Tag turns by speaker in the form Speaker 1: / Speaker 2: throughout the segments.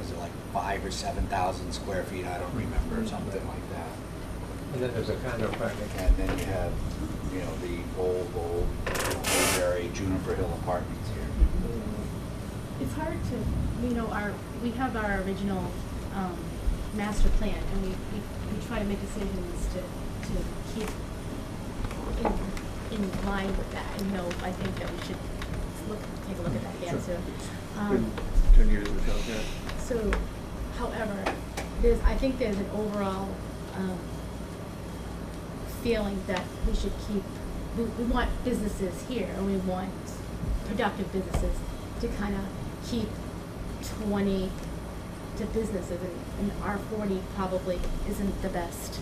Speaker 1: is it like five or seven thousand square feet, I don't remember, something like that.
Speaker 2: And then there's a condo project.
Speaker 1: And then you have, you know, the old, old, you know, Woodbury Juniper Hill apartments here.
Speaker 3: It's hard to, you know, our, we have our original, um, master plan, and we, we, we try to make decisions to, to keep in, in line with that, and no, I think that we should look, take a look at that again,
Speaker 4: Sure.
Speaker 3: too. Um,
Speaker 4: Ten years of help, yeah.
Speaker 3: so, however, there's, I think there's an overall, um, feeling that we should keep, we, we want businesses here, and we want productive businesses to kind of keep twenty to businesses, and, and R forty probably isn't the best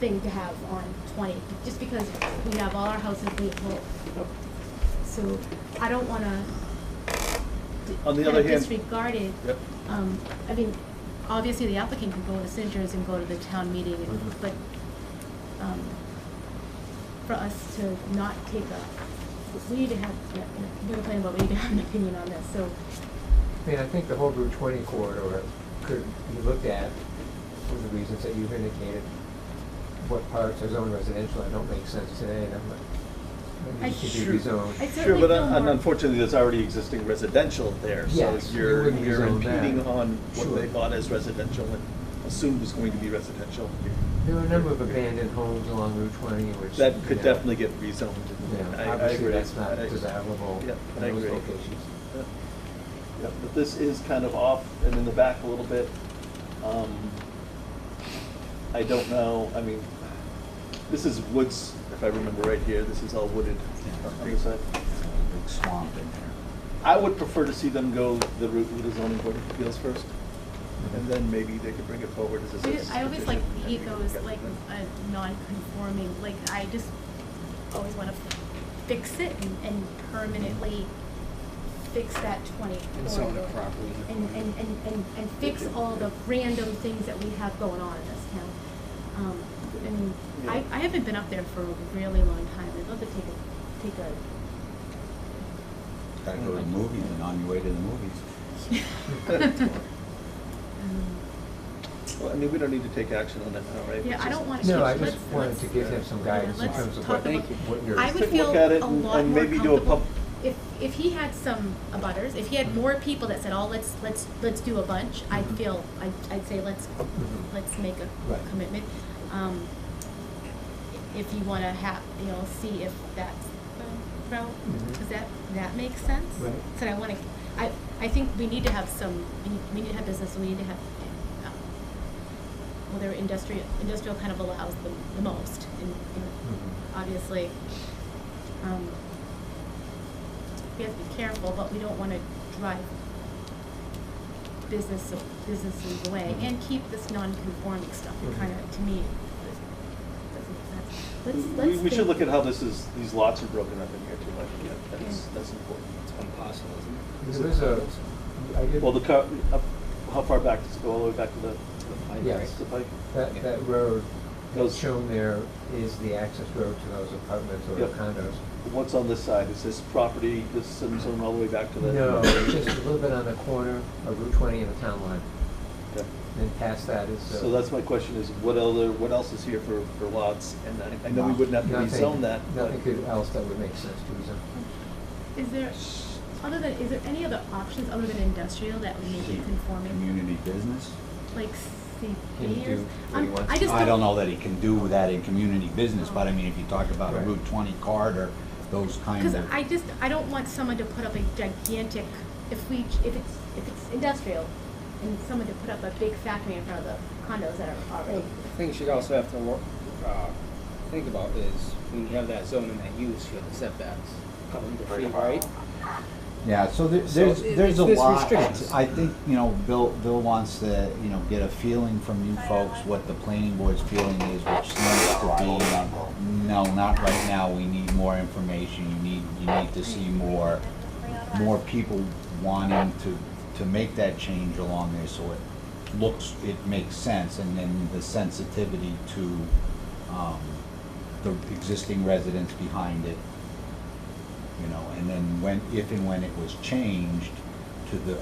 Speaker 3: thing to have on twenty, just because we have all our houses being full. So, I don't wanna d-
Speaker 4: On the
Speaker 3: kind
Speaker 4: other
Speaker 3: of
Speaker 4: hand-
Speaker 3: disregarded
Speaker 4: Yep.
Speaker 3: um, I mean, obviously the applicant can go to signatures and go to the town meeting, and-
Speaker 4: Mm-hmm.
Speaker 3: but, um, for us to not take a, we need to have, you know, we're complaining about, we need to have an opinion on this, so,
Speaker 2: I mean, I think the whole Route 20 corridor could be looked at for the reasons that you've indicated. What parts are zoned residential and don't make sense today, and I'm like,
Speaker 3: I-
Speaker 2: maybe it should
Speaker 4: Sure.
Speaker 2: be rezoned.
Speaker 3: I
Speaker 4: Sure,
Speaker 3: certainly
Speaker 4: but
Speaker 3: feel
Speaker 4: un-
Speaker 3: more.
Speaker 4: and unfortunately, there's already existing residential there, so
Speaker 2: Yes, we
Speaker 4: you're,
Speaker 2: wouldn't
Speaker 4: you're
Speaker 2: rezone that.
Speaker 4: impeding on what
Speaker 2: Sure.
Speaker 4: they bought as residential and assumed was going to be residential.
Speaker 2: There were a number of abandoned homes along Route 20, which.
Speaker 4: That
Speaker 2: you
Speaker 4: could
Speaker 2: know,
Speaker 4: definitely get rezoned.
Speaker 2: you know,
Speaker 4: I- I
Speaker 2: Obviously,
Speaker 4: agree.
Speaker 2: that's not
Speaker 4: I-
Speaker 2: desirable
Speaker 4: Yeah,
Speaker 2: in
Speaker 4: I
Speaker 2: those
Speaker 4: agree.
Speaker 2: locations.
Speaker 4: Yeah, Yeah, but this is kind of off and in the back a little bit. Um, I don't know, I mean, this is woods, if I remember right here, this is all wooded on the other side.
Speaker 1: Big swamp in there.
Speaker 4: I would prefer to see them go the route with the zoning board of appeals first, and then maybe they could bring it forward as a
Speaker 3: We-
Speaker 4: citizen's
Speaker 3: I always like
Speaker 4: petition, and we
Speaker 3: ego
Speaker 4: can
Speaker 3: is
Speaker 4: get
Speaker 3: like
Speaker 4: them.
Speaker 3: a non-conforming, like I just always wanna fix it and, and permanently fix that twenty corridor.
Speaker 1: And zone it properly in the
Speaker 3: And,
Speaker 1: corner.
Speaker 3: and, and, and, and fix all the random things that we have going on in this town. Um, I mean, I,
Speaker 4: Yeah.
Speaker 3: I haven't been up there for a really long time, I'd love to take a, take a
Speaker 1: Gotta go to the movies and on your way to the movies.
Speaker 3: Um,
Speaker 4: Well, I mean, we don't need to take action on that now, right?
Speaker 3: Yeah,
Speaker 4: It's
Speaker 3: I
Speaker 4: just-
Speaker 3: don't want to.
Speaker 2: No, I
Speaker 3: let's-
Speaker 2: just wanted
Speaker 3: let's-
Speaker 2: to give him some guidance in
Speaker 3: let's
Speaker 2: terms of
Speaker 3: talk
Speaker 2: what,
Speaker 3: about-
Speaker 2: what your.
Speaker 3: I would
Speaker 4: Take a
Speaker 3: feel
Speaker 4: look at it
Speaker 3: a
Speaker 4: and-
Speaker 3: lot
Speaker 4: and
Speaker 3: more
Speaker 4: maybe do a
Speaker 3: comfortable.
Speaker 4: pub-
Speaker 3: If, if he had some abutters, if he had more people that said, oh, let's, let's, let's do a bunch, I'd
Speaker 2: Mhm.
Speaker 3: feel, I'd, I'd say, let's,
Speaker 2: Mhm.
Speaker 3: let's make
Speaker 2: Right.
Speaker 3: a commitment. Um, If you wanna have, you know, see if that's the route,
Speaker 2: Mhm.
Speaker 3: does that, that make sense?
Speaker 2: Right.
Speaker 3: So I wanna, I, I think we need to have some, we need- we need to have business, we need to have, uh, well, they're industrial, industrial kind of allows the, the most, and, you know,
Speaker 2: Mhm.
Speaker 3: obviously. um, We have to be careful, but we don't wanna drive business, businesses away,
Speaker 2: Mhm.
Speaker 3: and keep this non-conforming stuff, it
Speaker 2: Mhm.
Speaker 3: kinda, to me, doesn't,
Speaker 4: We-
Speaker 3: make sense. let's, let's
Speaker 4: We, we should
Speaker 3: think-
Speaker 4: look at how this is, these lots are broken up in here too, I think, yeah, that's,
Speaker 3: Yeah.
Speaker 4: that's important.
Speaker 1: It's impossible, isn't it?
Speaker 2: There is a, I did.
Speaker 4: Well, the car, up, how far back does it go, all the way back to the,
Speaker 1: Like,
Speaker 2: Yes.
Speaker 4: the pike?
Speaker 2: That,
Speaker 1: Yeah.
Speaker 2: that road
Speaker 4: Those-
Speaker 2: that's shown there is the access road to those apartments or
Speaker 4: Yep.
Speaker 2: condos.
Speaker 4: What's on this side, is this property, this zone zone all the way back to the?
Speaker 2: No, just a little bit on the corner of Route twenty and the town line.
Speaker 4: Okay.
Speaker 2: Then past that is. uh,
Speaker 4: So that's my question is, what other, what else is here for, for lots? And I, I know we wouldn't have to
Speaker 2: nothing-
Speaker 4: rezone that, but.
Speaker 2: Nothing could- else that would make sense to rezone.
Speaker 3: Is there, other than, is there any other options other than industrial that would make it conforming,
Speaker 1: Community business?
Speaker 3: like
Speaker 2: Can you
Speaker 3: CP
Speaker 2: do
Speaker 3: or?
Speaker 2: what he
Speaker 3: I'm-
Speaker 2: wants?
Speaker 3: I just
Speaker 1: I don't know that he can do that in community business, but I
Speaker 3: Oh.
Speaker 1: mean, if you talk about a
Speaker 2: Right.
Speaker 1: Route twenty corridor, those kind of.
Speaker 3: Because I just, I don't want someone to put up a gigantic, if we, if it's, if it's industrial, and someone to put up a big factory in front of the condos that are
Speaker 5: Well,
Speaker 3: already.
Speaker 5: The thing you should also have to work, uh, think about is when you have that zone and that use, you have the setbacks coming to free, right?
Speaker 1: Yeah, so there-
Speaker 5: So
Speaker 1: there's,
Speaker 5: it-
Speaker 1: there's
Speaker 5: it's-
Speaker 1: a
Speaker 5: there's
Speaker 1: lot,
Speaker 5: restrictions.
Speaker 1: I think, you know, Bill, Bill wants to, you know, get a feeling from you folks what the planning board's feeling is, which seems to be, no, not right now, we need more information, you need, you need to see more, more people wanting to, to make that change along there, so it looks, it makes sense, and then the sensitivity to, um, the existing residents behind it, you know, and then when, if and when it was changed to the